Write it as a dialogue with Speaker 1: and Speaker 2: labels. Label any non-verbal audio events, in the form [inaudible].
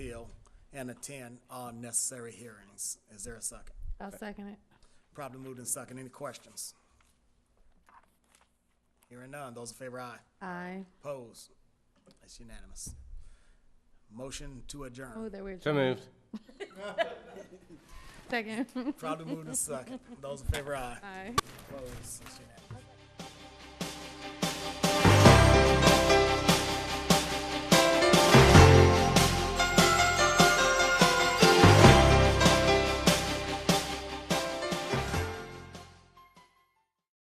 Speaker 1: and attend all necessary hearings. Is there a second?
Speaker 2: I'll second it.
Speaker 1: Probably moved in second. Any questions? Hearing none. Those in favor, aye.
Speaker 2: Aye.
Speaker 1: Opposed? That's unanimous. Motion to
Speaker 2: Oh,
Speaker 1: adjourn.
Speaker 2: there we
Speaker 3: So moved.
Speaker 2: Second.
Speaker 1: Probably moved in second. Those in favor, aye.
Speaker 2: Aye. [laughs]
Speaker 1: Opposed? That's unanimous.